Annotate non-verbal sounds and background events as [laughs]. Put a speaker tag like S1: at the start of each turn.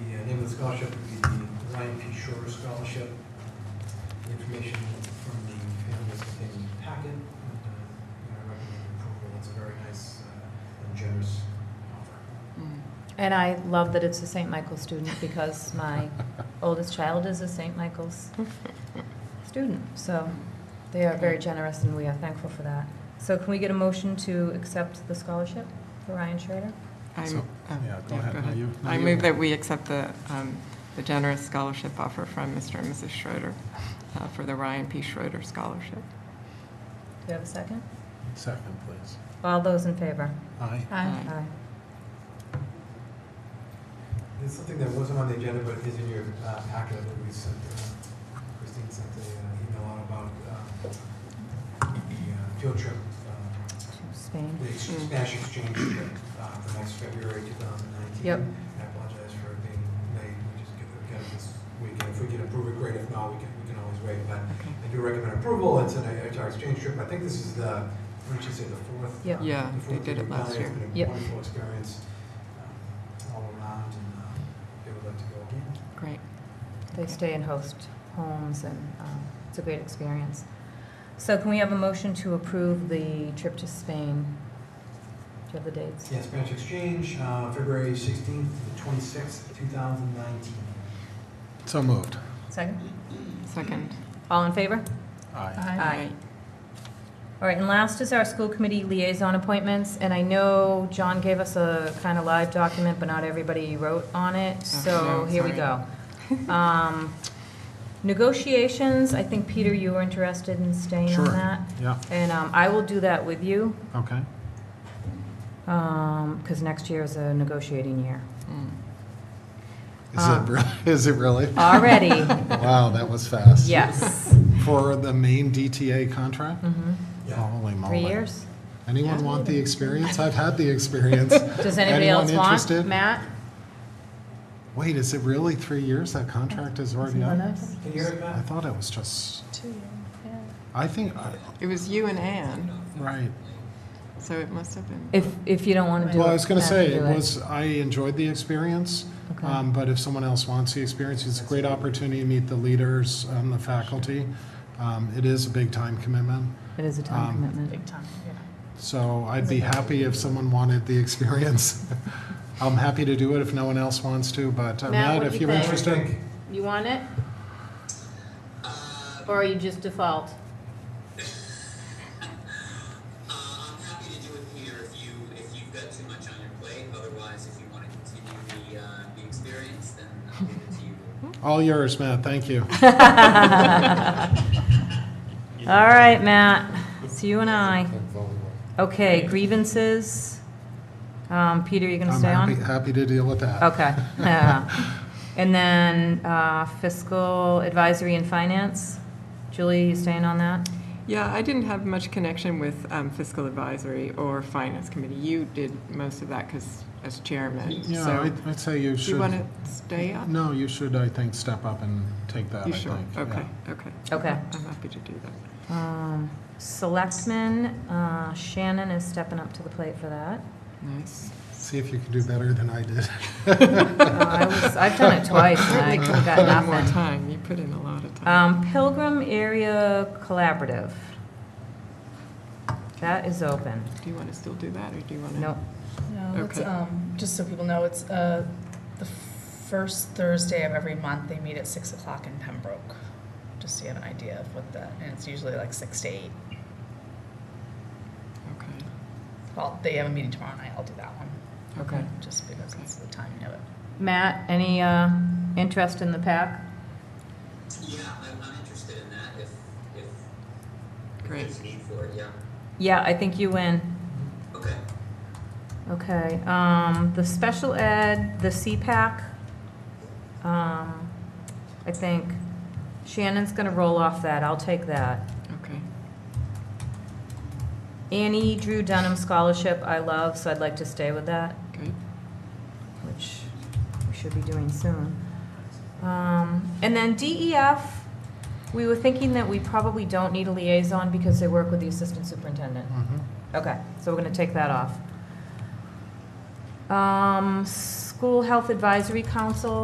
S1: scholarship would be the Ryan P. Shore Scholarship. The Information from the families within the packet. and, uh, I recommend approval. It's a very nice uh, and generous offer.
S2: And I love that it's a St. Michael student because my oldest child is a St. Michael's student. So they are very generous and we are thankful for that. So can we get a motion to accept the scholarship for Ryan Schrader?
S3: I'm-
S4: So-
S3: oh,
S4: yeah, go ahead. No, you- no,
S3: I
S4: you-
S3: move that we accept the, um, the generous scholarship offer from Mr. and Mrs. Schroeder uh, for the Ryan P. Schroeder Scholarship.
S2: Do you have a second?
S4: Second, please.
S2: All those in favor?
S4: Aye.
S3: Aye.
S2: Aye.
S1: It's something that wasn't on the agenda, but is in your uh, packet that we sent, uh, Christine sent an email out about um, the uh, field trip, uh,
S2: To Spain.
S1: the ex-
S3: Mm.
S1: Spanish exchange trip uh, for next February 2019.
S2: Yep.
S1: I apologize for being late, we just get it, get it this weekend. If we can approve it, great, if not, we can, we can always wait. But I do recommend approval, it's an HR exchange trip, I think this is the, what did you say, the fourth?
S2: Yep.
S1: uh,
S3: Yeah,
S1: the
S3: they
S1: fourth
S3: did it
S1: we've done
S3: last year.
S1: It's been a
S2: Yep.
S1: wonderful experience um, all around, and uh, they would like to go again.
S3: Great.
S2: They stay in host homes and um, it's a great experience. So can we have a motion to approve the trip to Spain? Do you have the dates?
S1: Yeah, Spanish Exchange, uh, February 16th to the 26th, 2019.
S4: So moved.
S2: Second?
S3: Second.
S2: All in favor?
S4: Aye.
S2: Aye. All right, and last is our school committee liaison appointments, and I know John gave us a kind of live document, but not everybody wrote on
S4: Oh,
S2: it, so
S3: no,
S2: here we go.
S4: [laughs]
S2: Um, Negotiations, I think, Peter, you were interested in staying on
S4: Sure.
S2: that,
S4: Yeah,
S2: and um, I will do that with you,
S4: okay.
S2: because next year is a negotiating year.
S3: Mm.
S4: Is
S2: Uh.
S4: it, re- [laughs] is it really? [laughs]
S2: Already,
S4: Wow, that was fast.
S2: yes.
S4: For the main DTA contract?
S2: Mhm.
S1: Yeah,
S4: Holy moly.
S2: Three years.
S4: Anyone want the experience? I've had the
S2: [laughs]
S4: experience.
S2: Does anybody
S4: Anyone
S2: else want?
S4: interested?
S2: Matt?
S4: Wait, is it really three years? That contract is already
S2: Someone
S4: up?
S2: else?
S1: can you hear it,
S4: I
S1: Matt?
S4: thought it was just, I think, I-
S3: It was you and Anne,
S4: right.
S3: so it must have been.
S2: If, if you don't want to do it.
S4: Well, I was going to
S2: Matt
S4: say,
S2: can
S4: it
S2: do
S4: was, I enjoyed the experience,
S2: Okay.
S4: um, but if someone else wants the experience, it's a great opportunity to meet the leaders, um, the faculty. Um, It is a big time commitment,
S2: It is a time
S4: um,
S2: commitment.
S5: Big time, yeah.
S4: so I'd be happy if someone wanted the experience. [laughs] I'm happy to do it if no one else wants to, but uh,
S5: Matt, what
S4: Matt,
S5: do
S4: if
S5: you
S4: you're
S5: think?
S1: What do you
S4: interested.
S1: think?
S5: You want it? Or are you just default?
S6: Uh, I'm happy to do it here if you, if you've got too much on your plate, otherwise, if you wanna continue the, uh, the experience, then I'll leave it to
S4: [laughs]
S6: you.
S4: All yours, Matt, thank you.
S2: [laughs] All right, Matt, it's you and I. Okay, grievances. Um, Peter, you gonna
S4: I'm
S2: stay
S4: happy,
S2: on?
S4: happy to deal with that. [laughs]
S2: Okay. Uh, And then uh, fiscal advisory and finance. Julie, you staying on that?
S3: Yeah, I didn't have much connection with um, fiscal advisory or finance committee. You did most of that because as chairman,
S4: Yeah,
S3: so
S4: I'd- I'd say
S3: do
S4: you
S3: you
S4: should,
S3: want to stay up?
S4: no, you should, I think, step up and take that, I
S3: You sure?
S4: think.
S3: Okay,
S4: yeah.
S3: okay.
S2: Okay.
S3: I'm happy to do that.
S2: Um, Selectmen, uh, Shannon is stepping up to the plate for that.
S3: Nice.
S4: See if you can do better than I did. [laughs]
S2: Uh, I was- I've done it twice and I
S3: Certainly could
S2: could've
S3: have
S2: got
S3: gotten more
S2: nothing.
S3: time. You put in a lot of time.
S2: Um, Pilgrim Area Collaborative. That is open.
S3: Do you want to still do that, or do you want to?
S2: Um, Nope.
S5: No, it's,
S3: Okay.
S5: um, just so people know, it's, uh, the first Thursday of every month, they meet at six o'clock in Pembroke. Just so you have an idea of what that, and it's usually like six to eight.
S3: Okay.
S5: Well, they have a meeting tomorrow night, I'll do that one,
S3: Okay.
S5: just because it's the timing of it.
S2: Matt, any uh, interest in the pack?
S6: Yeah, I'm, I'm interested in that if, if
S3: Great.
S6: there's need for it, yeah,
S2: Yeah, I think you win.
S6: okay.
S2: Okay, um, the special ed, the CPAC, um, I think Shannon's gonna roll off that, I'll take that.
S3: Okay.
S2: Annie Drew Dunham Scholarship, I love, so I'd like to stay with that.
S3: Good.
S2: which we should be doing soon. Um, And then DEF, we were thinking that we probably don't need a liaison because they work with the assistant superintendent.
S4: Mhm.
S2: Okay, so we're gonna take that off. Um, School Health Advisory Council,